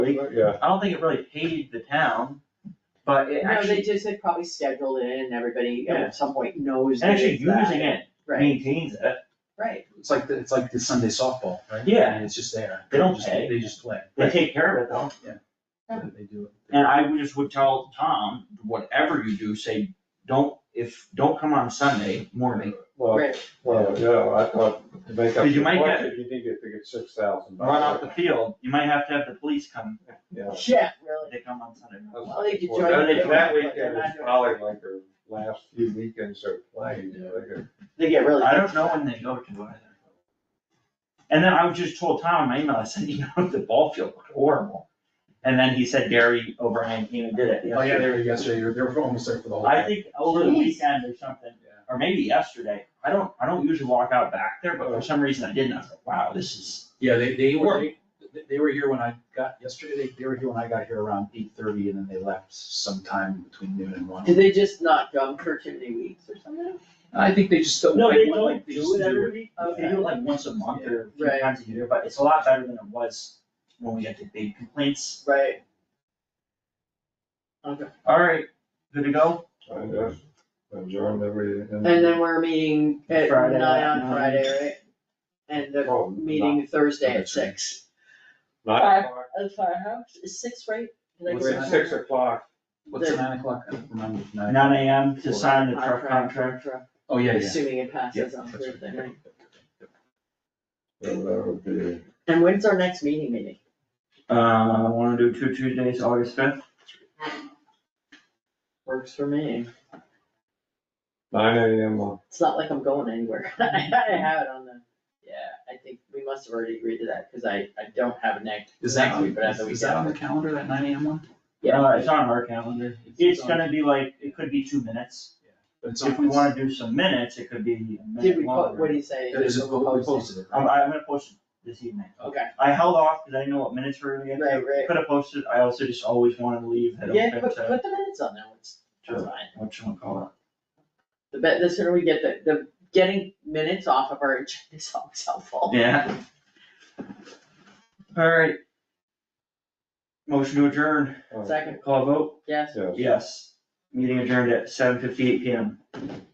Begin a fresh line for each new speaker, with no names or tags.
Yeah,
I don't think it really paid the town, but it
No, they
actually,
just, they probably scheduled it in and everybody
Yeah.
at some point knows
and
that
actually
it's that.
using it
Right,
maintains it,
right,
It's like, the- it's like the Sunday softball, right?
Yeah.
I mean, It's just there.
They don't
just-
pay.
They just play.
they take care of it though.
They do it.
And I would just would tell Tom, whatever you do, say, don't, if, don't come on Sunday morning.
well,
right.
well, yeah, I thought to make up.
Because you
the
might get-
budget, You need to get six thousand.
Run out the field, you might have to have the police come
Yeah.
Yeah,
if
really.
they come on Sunday.
Well, they could
Well,
join
that-
the-
That
but they're
weekend is
not doing it.
probably like their last few weekends of playing, you know, they could-
They get really.
I don't know when they go to either. And then I was just told Tom in my email, I said, you know, the ball field looked horrible. And then he said Gary O'Brien came and did it.
Oh, yeah, they were yesterday, they were, they were almost there for the whole.
I
thing.
think over the
Jeez.
weekend or something,
Yeah.
or maybe yesterday, I don't, I don't usually walk out back there, but for some reason I didn't, I was like, wow, this is.
Yeah, they, they were,
Work.
they, they were here when I got, yesterday, they, they were here when I got here around eight thirty and then they left sometime between noon and one.
Did they just not come for too many weeks or something?
I think they just don't. I think they just
week, they do it like once a month or a few
Right.
times a year, but it's a lot better than it was when we got the big complaints.
Right. Okay,
Alright, good to go?
I just adjourned every.
and then we're meeting at
Friday at
nine on
nine.
Friday, right? And the
Oh,
meeting Thursday at
That's right.
six.
Nine o'clock,
At Firehouse, is six, right? Did I
What's
get
it,
that?
six o'clock,
What's the nine o'clock? I don't remember. Nine.
Uh, Nine AM to sign the truck
Contract,
contract.
contract,
Oh, yeah, yeah.
Assuming it
Yeah,
passes on
that's right.
Thursday, right?
so that would be,
And when's our next meeting meeting?
Uh, I wanna do two Tuesdays, August fifth.
Works for me.
nine AM on
It's not like I'm going anywhere. I have it on the, yeah, I think we must have already agreed to that, cause I, I don't have a next.
Is that,
next
on-
week, but I have the
is that on the
weekend.
calendar, that nine AM one?
Yeah.
Uh, it's on our calendar. It's gonna be like, it could be two minutes.
But it's on.
If we wanna do some minutes, it could be a minute
Did we, po-
longer.
what do you say?
It is, we
Did we post it?
posted it,
I'm,
right?
I'm gonna post it this evening.
Okay,
I held off because I didn't know what minutes we were gonna get.
right, right.
Could have posted, I also just always wanted to leave, I don't
Yeah,
think
put,
so.
put the minutes on there, it's, it's
Sure.
fine.
What you wanna call it?
The bet, the sooner we get the, the, getting minutes off of our agenda is always helpful.
Yeah. Alright. Motion to adjourn,
Oh,
Second,
call a vote,
yes.
yes.
yes. Meeting adjourned at seven fifty-eight PM.